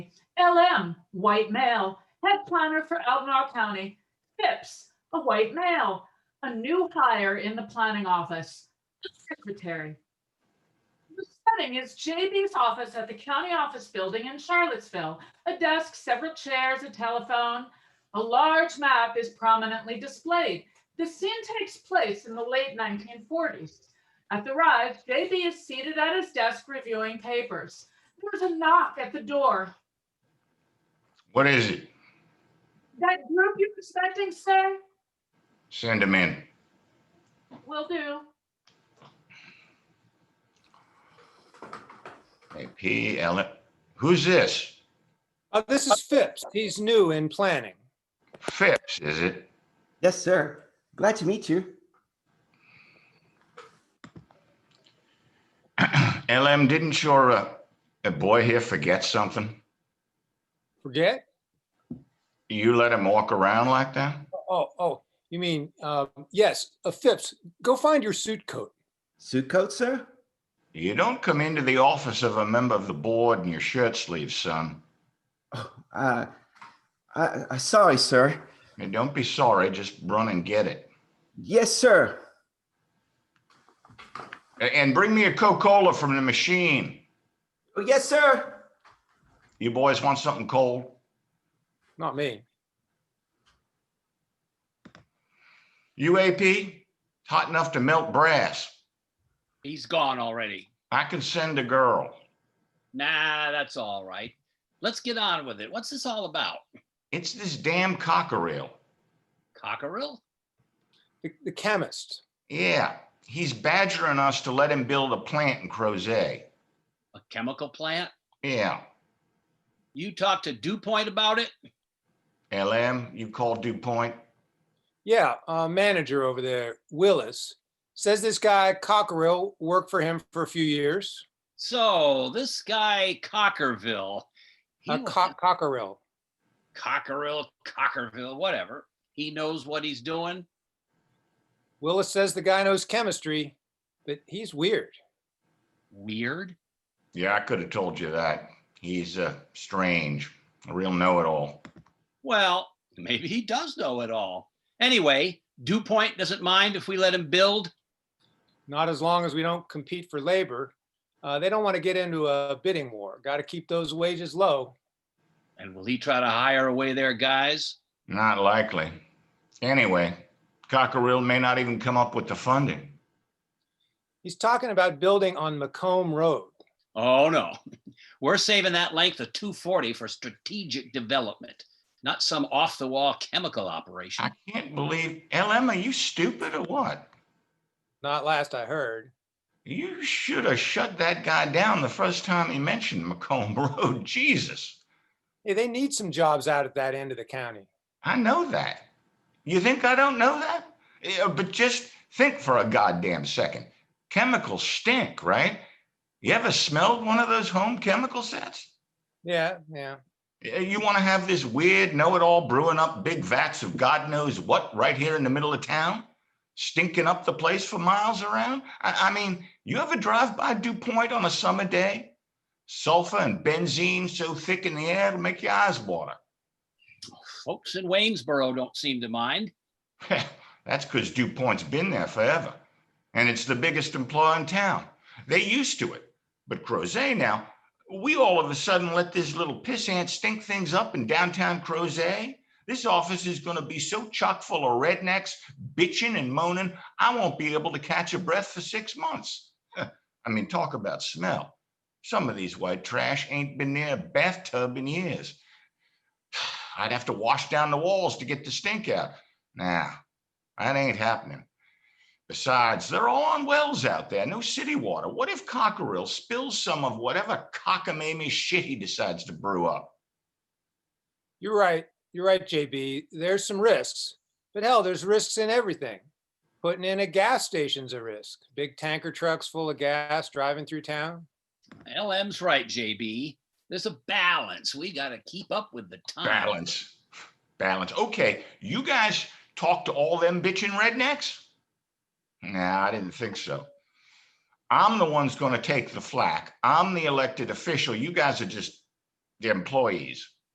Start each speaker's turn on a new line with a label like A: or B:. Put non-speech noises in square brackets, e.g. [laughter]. A: LM, white male, head planner for Elginar County. Phipps, a white male, a new hire in the planning office, a secretary. The setting is JB's office at the county office building in Charlottesville. A desk, several chairs, a telephone. A large map is prominently displayed. The scene takes place in the late 1940s. At the rise, JB is seated at his desk reviewing papers. There's a knock at the door.
B: What is it?
A: That group you're expecting, sir?
B: Send him in.
A: Will do.
B: Hey, P. Ellen, who's this?
C: Uh, this is Phipps. He's new in planning.
B: Phipps, is it? [clears throat]
D: Yes, sir. Glad to meet you.
B: LM, didn't your, uh, a boy here forget something?
C: Forget?
B: You let him walk around like that?
C: Oh, oh, you mean, um, yes, uh, Phipps, go find your suit coat.
D: Suit coat, sir?
B: You don't come into the office of a member of the board in your shirt sleeves, son.
D: Uh, I, I, sorry, sir.
B: And don't be sorry, just run and get it.
D: Yes, sir.
B: A- And bring me a Coca-Cola from the machine.
D: Oh, yes, sir.
B: You boys want something cold?
C: Not me.
B: UAP, hot enough to melt brass.
E: He's gone already.
B: I can send a girl.
E: Nah, that's all right. Let's get on with it. What's this all about?
B: It's this damn cockerill.
E: Cockerill?
C: The, the chemist.
B: Yeah, he's badgering us to let him build a plant in Crozet.
E: A chemical plant?
B: Yeah,
E: You talked to DuPont about it?
B: LM, you call DuPont.
C: Yeah, uh, manager over there, Willis, says this guy Cockerill worked for him for a few years.
E: So this guy Cockerville. He
C: Uh,
E: was-
C: Co- Cockerill.
E: Cockerill, Cockerville, whatever. He knows what he's doing.
C: Willis says the guy knows chemistry, but he's weird.
E: Weird.
B: Yeah, I could have told you that. He's uh, strange, a real know-it-all.
E: Well, maybe he does know it all. Anyway, DuPont doesn't mind if we let him build.
C: Not as long as we don't compete for labor. Uh, they don't want to get into a bidding war. Got to keep those wages low.
E: And will he try to hire away their guys?
B: Not likely. Anyway, cockerill may not even come up with the funding.
C: He's talking about building on Macomb Road.
E: Oh, no. [laughs] We're saving that length of 240 for strategic development, not some off the wall chemical operation.
B: I can't believe, LM, are you stupid or what?
C: Not last I heard.
B: You should have shut that guy down the first time he mentioned Macomb [laughs] Road. Jesus,
C: Hey, they need some jobs out at that end of the county.
B: I know that. You think I don't know that? Yeah, but just think for a goddamn second. Chemicals stink, right? You ever smelled one of those home chemical sets?
C: Yeah, yeah.
B: Yeah, You want to have this weird know it all brewing up big vats of God knows what right here in the middle of town, stinking up the place for miles around? I, I mean, you ever drive by DuPont on a summer day? Sulfur and benzene so thick in the air it'll make your eyes water.
E: Folks in Waynesboro don't seem to mind.
B: [laughs] That's because DuPont's been there forever. And it's the biggest employer in town. They're used to it. But Crozet now, we all of a sudden let this little pissant stink things up in downtown Crozet. This office is going to be so chock full of rednecks bitching and moaning, I won't be able to catch a breath for six months. [laughs] I mean, talk about smell. Some of these white trash ain't been near a bathtub in years. [sighs] I'd have to wash down the walls to get the stink out. Nah, that ain't happening. Besides, they're all on wells out there, no city water. What if Cockerill spills some of whatever cockamamie shit he decides to brew up?
C: You're right. You're right, JB. There's some risks, but hell, there's risks in everything. Putting in a gas station's a risk. Big tanker trucks full of gas driving through town.
E: LM's right, JB. There's a balance. We got to keep up with the time.
B: Balance. Balance. Okay, you guys talk to all them bitching rednecks? Nah, I didn't think so. I'm the one's gonna take the flack. I'm the elected official. You guys are just the employees.